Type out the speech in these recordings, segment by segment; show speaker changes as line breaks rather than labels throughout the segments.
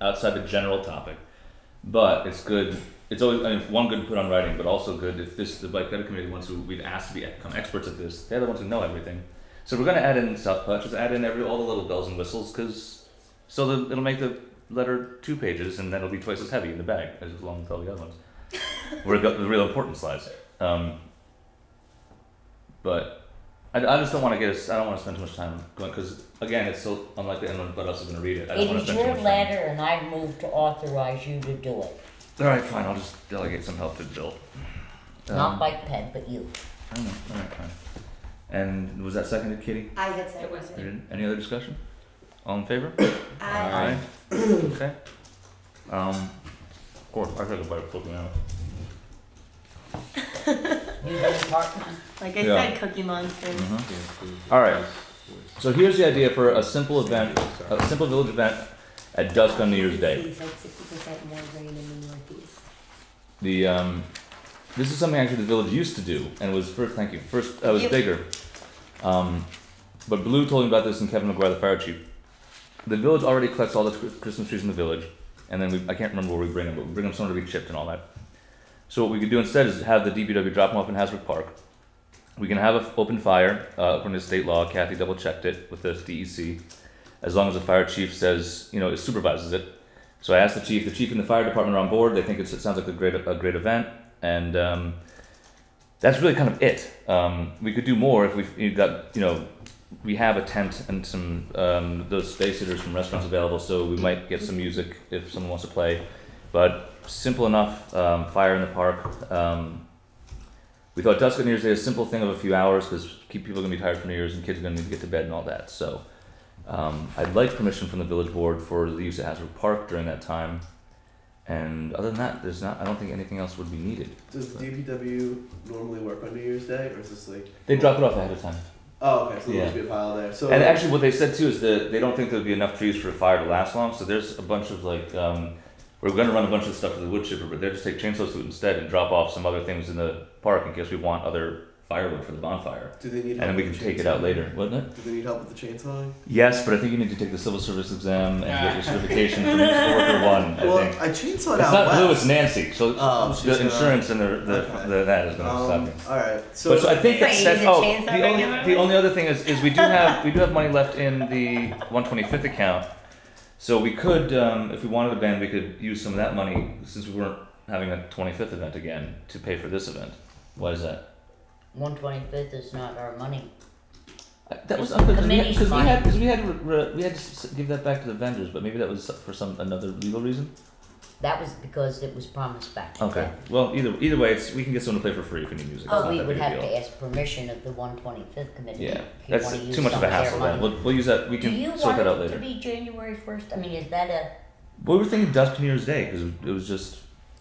outside the general topic. But it's good. It's always I mean, one good to put on writing, but also good if this the bike better committee ones who we've asked to be, become experts at this. They're the ones who know everything. So we're gonna add in South Punch. Just add in every all the little bells and whistles, because so the, it'll make the letter two pages, and then it'll be twice as heavy in the bag as long as all the other ones. We're got the real important slides. Um, but I, I just don't want to get. us- I don't want to spend too much time going because again, it's so unlikely anyone but us is going to read it. I don't
It
want to
is
spend too
your
much time.
letter and I move to authorize you to do it.
All right, fine. I'll just delegate some help to Bill. Oh. Um,
Not Mike Penn, but you.
I don't know. All right, fine. And was that seconded, Kitty?
I had said
It was
You didn't- Any other discussion? All in favor?
I,
Aye. Okay. Um, of course, I took a bite of flipping out.
You do part
like I
Yeah.
said, Cookie Monster.
Mhm. All right. So here's the idea for a simple event, a simple village event at dusk on New Year's Day.
It's like 60% more rain in the Northeast.
The um, this is something actually the village used to do, and it was first. Thank you. First, uh, it was
Yep.
bigger. Um, but Blue told me about this, and Kevin McGuire, the fire chief. The village already collects all the tr- Christmas trees in the village, and then we, I can't remember where we bring them, but we bring them somewhere to be chipped and all that. So what we could do instead is have the DPW drop them off in Hasbrook Park. We can have an open fire. Uh, according to state law, Kathy double checked it with the DEC. As long as the fire chief says, you know, supervises it. So I asked the chief. The chief and the fire department are on board. They think it's, it sounds like a great a great event, and um, that's really kind of it. Um, we could do more if we've you've got you know we have a tent and some um, those space heaters from restaurants available, so we might get some music if someone wants to play. But simple enough. Um, fire in the park. Um, we thought dusk on New Year's Day is a simple thing of a few hours because keep people are gonna be tired from New Year's and kids are gonna need to get to bed and all that. So. Um, I'd like permission from the village board for the use of Hasbrook Park during that time. And other than that, there's not. I don't think anything else would be needed.
Does DPW normally work on New Year's Day, or is this like?
They drop it off ahead of time.
Oh, okay. So
Yeah.
there'll just be a pile there. So
And actually, what they said too is that they don't think there'll be enough trees for a fire to last long. So there's a bunch of like, um, we're going to run a bunch of stuff to the wood chipper, but they'll just take chainsaws to it instead and drop off some other things in the park in case we want other firewood for the bonfire.
do they need?
And
help
then we
with
can
the
take it out
chainsaw?
later, wouldn't it?
Do they need help with the chainsaw?
Yes, but I think you need to take the civil service exam and get your certification from Mr. Worker One. I
well,
think.
I chainsawed
It's
out
not
west.
Blue, it's Nancy. So
uh, Oh, she's
the
gonna-
insurance and the, the,
Okay.
the that is going to stop
Um,
you.
all right. So,
But so I think
Wait,
it
you
says,
need to
oh,
change that
the only,
regularly?
the only other thing is, is we do have, we do have money left in the one twenty-fifth account. So we could, um, if we wanted a band, we could use some of that money, since we weren't having a twenty-fifth event again, to pay for this event. Why is that?
One twenty fifth is not our money.
I- That was
It's
unfair,
the
because we had,
committee's
because we
money.
had, because we had, to re- re- we had to s- give that back to the vendors, but maybe that was for some, another legal reason?
That was because it was promised back. to
Okay,
them.
well, either, either way, it's, we can get someone to play for free if we need music. It's
Oh,
not
we
that
would
big a
have
deal.
to ask permission of the one twenty fifth committee.
Yeah,
if you
that's
wanna use
too much of
some
a
their
hassle. Then
money.
we'll, we'll use that. We
Do you
can sort
want
that out
it to
later.
be January first? I mean, is that a,
Well, we were thinking dusk New Year's Day because it was just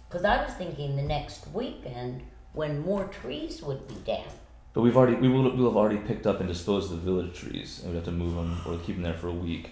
cause I was thinking the next weekend when more trees would be down.
But we've already we will we'll have already picked up and disposed of the village trees, and we have to move them or keep them there for a week.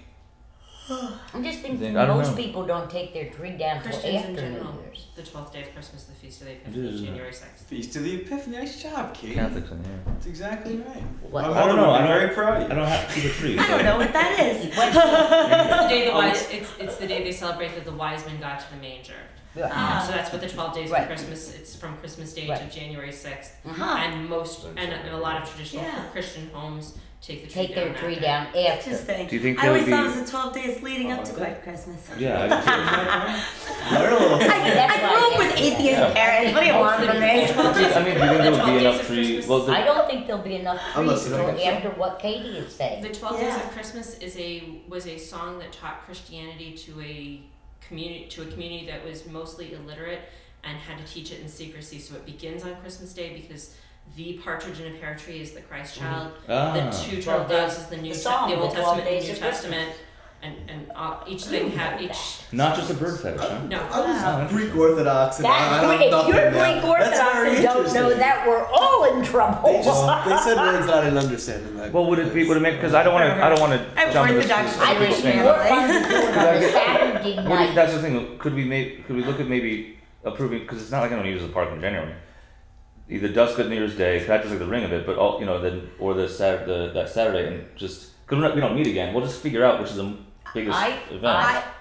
I'm just thinking
Then I don't
most
know.
people don't take their tree down till
Christians
after
in
New
general.
Year's.
The twelfth day of Christmas, the feast of the
It is,
Epiphany,
isn't it?
January sixth.
Feast of the Epiphany. Nice job, Kate.
Catholics in here.
That's exactly right.
What?
My
I don't
mother
know,
would be
I don't-
very proud
I
of you.
don't have to keep a tree.
I don't know what that is.
It's the day the
Oh,
wise. It's, it's the day they celebrate that the wise men got to the manger. Um, so that's what the twelve days
Ah. Right.
of Christmas. It's from Christmas Day
Right.
to January sixth,
Uh-huh.
and most and, and a lot of traditional
Yeah.
Christian homes take the tree
Take
down.
their tree
after.
down after.
Interesting.
Do you think
I
there
always
would be?
thought it was the 12 days leading up to
Oh,
Black Christmas.
yeah, I do too.
learn a little.
I,
That's
I
why
grew up
I
with
asked
atheist
that.
parents. What do you want from me?
I mean, do you think there would be enough trees?
trees?
Well,
I
the,
don't think there'll be enough
I'm
trees
listening.
till after what Katie is saying.
The Twelve Days
Yeah.
of Christmas is a was a song that taught Christianity to a community to a community that was mostly illiterate and had to teach it in secrecy. So it begins on Christmas Day because the partridge in a pear tree is the Christ child. The
ah,
two
Well,
turtle doves is the
Mm-hmm.
New
the
Test-
song,
the Old
the 12
Testament, and
Days
New
of Christmas.
Testament, and and uh, each thing had each
not just a bird fetish. Huh?
no.
I was
Wow.
Greek Orthodox, and I, I
That,
don't
if
nothing
you're
now.
Greek
That's
Orthodox
very
and don't know
interesting.
that, we're all in trouble.
They just they said words that I didn't understand. in that
Well, would it be? Would it make? Because I don't want to. I don't want to
I'm
jump into
Orthodox.
I
Jewish
wish
this.
we
family.
were fun doing it on a Saturday
What do-
night.
that's the thing. Could we maybe could we look at maybe approving because it's not like I'm going to use the park in January. Either dusk at New Year's Day, 'cause that's just like the ring of it, but all you know, then or the Saturday, the, that Saturday, and just because we don't meet again, we'll just figure out which is the m- biggest
I-
event.
I,